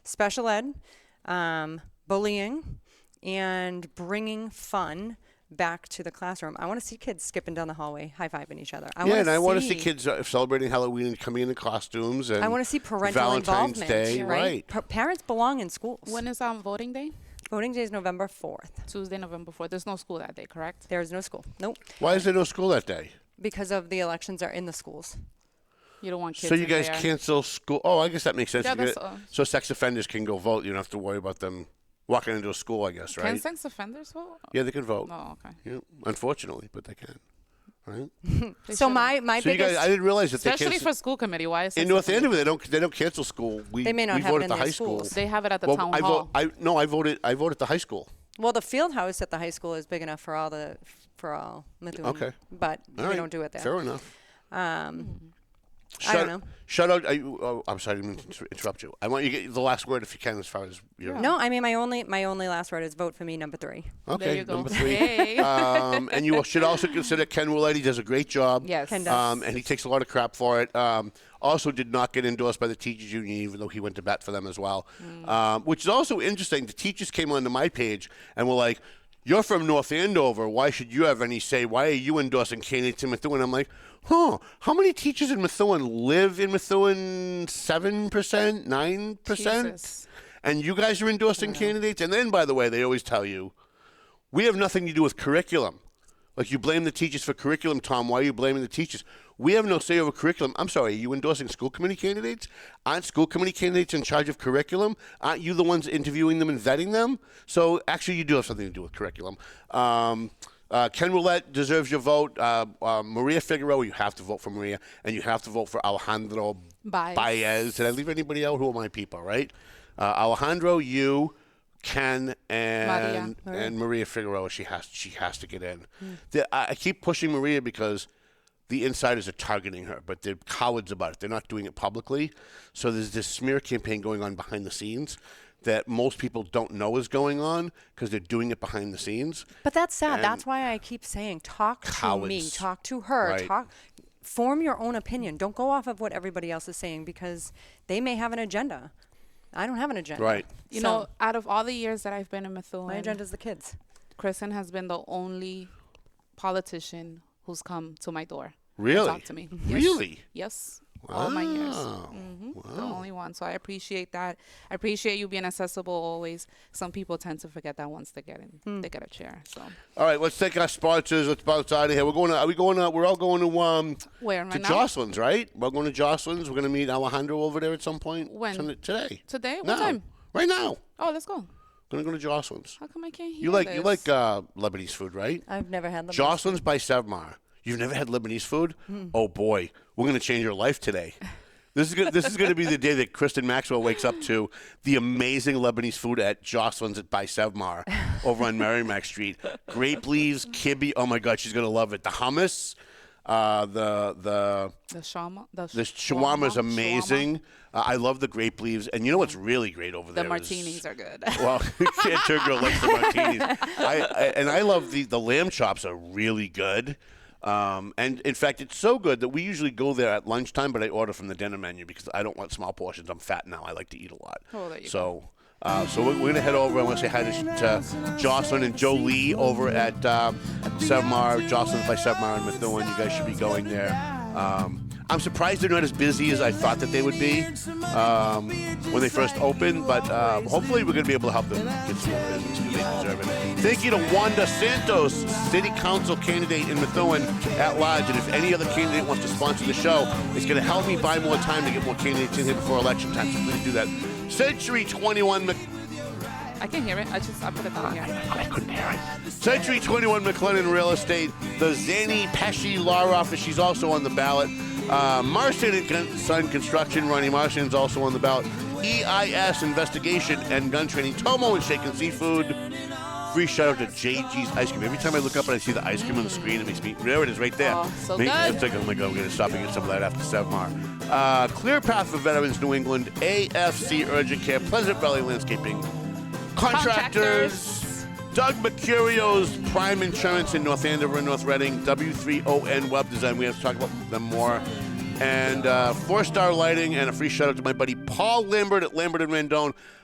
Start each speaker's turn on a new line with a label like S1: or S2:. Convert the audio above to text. S1: special ed, um, bullying, and bringing fun back to the classroom. I want to see kids skipping down the hallway, high fiving each other. I
S2: yeah,
S1: wanna
S2: and I want to see
S1: see
S2: kids uh, celebrating Halloween and coming in in costumes. And
S1: I want to see parental
S2: Valentine's
S1: involvement,
S2: Day,
S1: right?
S2: right?
S1: Pa- parents belong in schools.
S3: When is um voting day?
S1: Voting day is November fourth.
S3: Tuesday, November fourth. There's no school that day, correct?
S1: There is no school. Nope,
S2: Why is there no school that day?
S1: because of the elections are in the schools.
S3: You don't want kids.
S2: so you
S3: in
S2: guys
S3: there.
S2: cancel school? Oh, I guess that makes sense.
S3: Yeah,
S2: You get-
S3: that's, uh,
S2: so sex offenders can go vote. You don't have to worry about them walking into a school. I guess,
S3: Can
S2: right?
S3: sex offenders vote?
S2: yeah, they can vote.
S3: Oh, okay.
S2: Yeah, unfortunately, but they can. Right.
S3: They
S1: so
S3: shouldn't.
S1: my my
S2: so you
S1: biggest
S2: guys, I didn't realize that they
S3: especially
S2: cancel
S3: for school committee. Why is
S2: in
S3: sex
S2: North
S3: offenders-
S2: Andover. They don't. They don't cancel school. We
S1: They may not
S2: we
S1: have
S2: vote
S1: it in
S2: at the
S1: their
S2: high school.
S1: schools.
S3: They have it at the
S2: well,
S3: town
S2: I
S3: hall.
S2: vote. I no. I voted. I vote at the high school.
S1: well, the field house at the high school is big enough for all the for all Methuen.
S2: Okay.
S1: but we
S2: All right,
S1: don't do it there.
S2: Fair enough.
S1: Um, I
S2: Shut,
S1: don't know.
S2: Shut out. I, oh, I'm sorry. I didn't mean to interrupt you. I want you to get the last word if you can, as far as you know.
S1: No, I mean my only my only last word is vote for me number three.
S2: Okay,
S3: There you go.
S2: number three.
S3: Yay.
S2: um, and you should also consider Ken Willett. He does a great job.
S3: Yes. Ken does.
S2: Um, and he takes a lot of crap for it. Um, also, did not get endorsed by the teachers union, even though he went to bat for them as well.
S3: Mm.
S2: Um, which is also interesting. The teachers came onto my page and were like, "You're from North Andover. Why should you have any say? Why are you endorsing candidates in Methuen?" I'm like, "Huh? How many teachers in Methuen live in Methuen? Seven percent, nine percent."
S3: Jesus.
S2: And you guys are endorsing candidates. And then, by the way, they always tell you we have nothing to do with curriculum. Like you blame the teachers for curriculum, Tom. Why are you blaming the teachers? We have no say over curriculum. I'm sorry, are you endorsing school committee candidates? Aren't school committee candidates in charge of curriculum? Aren't you the ones interviewing them and vetting them? So actually, you do have something to do with curriculum. Um, uh, Ken Roulette deserves your vote. Uh, uh, Maria Figueroa, you have to vote for Maria, and you have to vote for Alejandro
S3: Baez.
S2: Baez. Did I leave anybody out? Who are my people, right? Uh, Alejandro, you, Ken, and
S3: Maria. Hmm.
S2: and and Maria Figueroa. She has she has to get in. The- I, I keep pushing Maria because the insiders are targeting her, but they're cowards about it. They're not doing it publicly. So there's this smear campaign going on behind the scenes that most people don't know is going on because they're doing it behind the scenes.
S1: But that's sad.
S2: And-
S1: that's why I keep saying talk to me,
S2: Cowards.
S1: talk to her,
S2: Right.
S1: talk form your own opinion. Don't go off of what everybody else is saying because they may have an agenda. I don't have an agenda.
S2: Right.
S3: You
S1: So,
S3: know, out of all the years that I've been in Methuen,
S1: my agenda is the kids.
S3: Kristen has been the only politician who's come to my door. and
S2: Really?
S3: talked to me. Yes.
S2: Really?
S3: Yes. All my years. hmm The only one. So I appreciate that. I appreciate you being accessible always. Some people tend to forget that once they get in, they get a chair. So
S2: All right, let's take our sponsors. Let's bounce out of here. We're going. To, are we going? To, we're all going to um
S3: Where,
S2: to
S3: right now?
S2: Jocelyn's, right? We're going to Jocelyn's. We're going to meet Alejandro over there at some point.
S3: When?
S2: Tonight- Today.
S3: Today? What
S2: No.
S3: time?
S2: Right now.
S3: oh, let's go.
S2: Gonna go to Jocelyn's.
S3: How come I can't hear
S2: You like
S3: This?
S2: you like uh, Lebanese food, right?
S1: I've never had them.
S2: Jocelyn's by Sevmar. You've never had Lebanese food? Oh boy, we're gonna change your life today. This is gonna, this is gonna be the day that Kristen Maxwell wakes up to the amazing Lebanese food at Jocelyn's at by Sevmar over on Merrimack Street. Grape leaves, kibbe. Oh my God, she's gonna love it. The hummus, uh, the the
S3: the shama. The,
S2: uh, the shawarma is
S3: shawarma.
S2: amazing. Uh, I love the grape leaves, and you know what's really great over
S3: The
S2: there? is-
S3: martinis are good.
S2: well, can't turn girl likes the martinis. I, I and I love the the lamb chops are really good. Um, and in fact, it's so good that we usually go there at lunchtime, but I order from the dinner menu because I don't want small portions. I'm fat now. I like to eat a lot.
S3: Oh, there you
S2: so, uh, so we're, we're gonna head over. I want to say hi to, to Jocelyn and Joe Lee over at um, Sevmar. Jocelyn by Sevmar and Methuen. You guys should be going there. Um, I'm surprised they're not as busy as I thought that they would be um, when they first opened, but um, hopefully we're going to be able to uh, help them get some more business because they deserve it. Thank you to Wanda Santos, City Council candidate in Methuen at large. And if any other candidate wants to sponsor the show, it's going to help me buy more time to get more candidates in here before election time. So please do that. Century 21 Mc-
S3: I can hear it. I just I put it down here.
S2: I couldn't hear it. Century 21 McLennan Real Estate, the Zanny Pesci Law Office. She's also on the ballot. Uh, Marston and Con- Son Construction, Ronnie Marston is also on the ballot. EIS Investigation and Gun Training, Tomo and Shaken Seafood. Free shout out to JG's Ice Cream. Every time I look up and I see the ice cream on the screen, it makes me. There it is, right there.
S3: Oh, so
S2: Makes-
S3: good.
S2: It's like, oh my God, we're going to stop and get some of that after Sevmar. Uh, Clear Path for Veterans New England, AFC Urgent Care, Pleasant Valley Landscaping, contractors.
S3: Contractors.
S2: Doug Mercurio's Prime Insurance in North Andover and North Reading, W3ON Web Design. We have to talk about them more. And uh, Four Star Lighting, and a free shout out to my buddy Paul Lambert at Lambert and Rendon.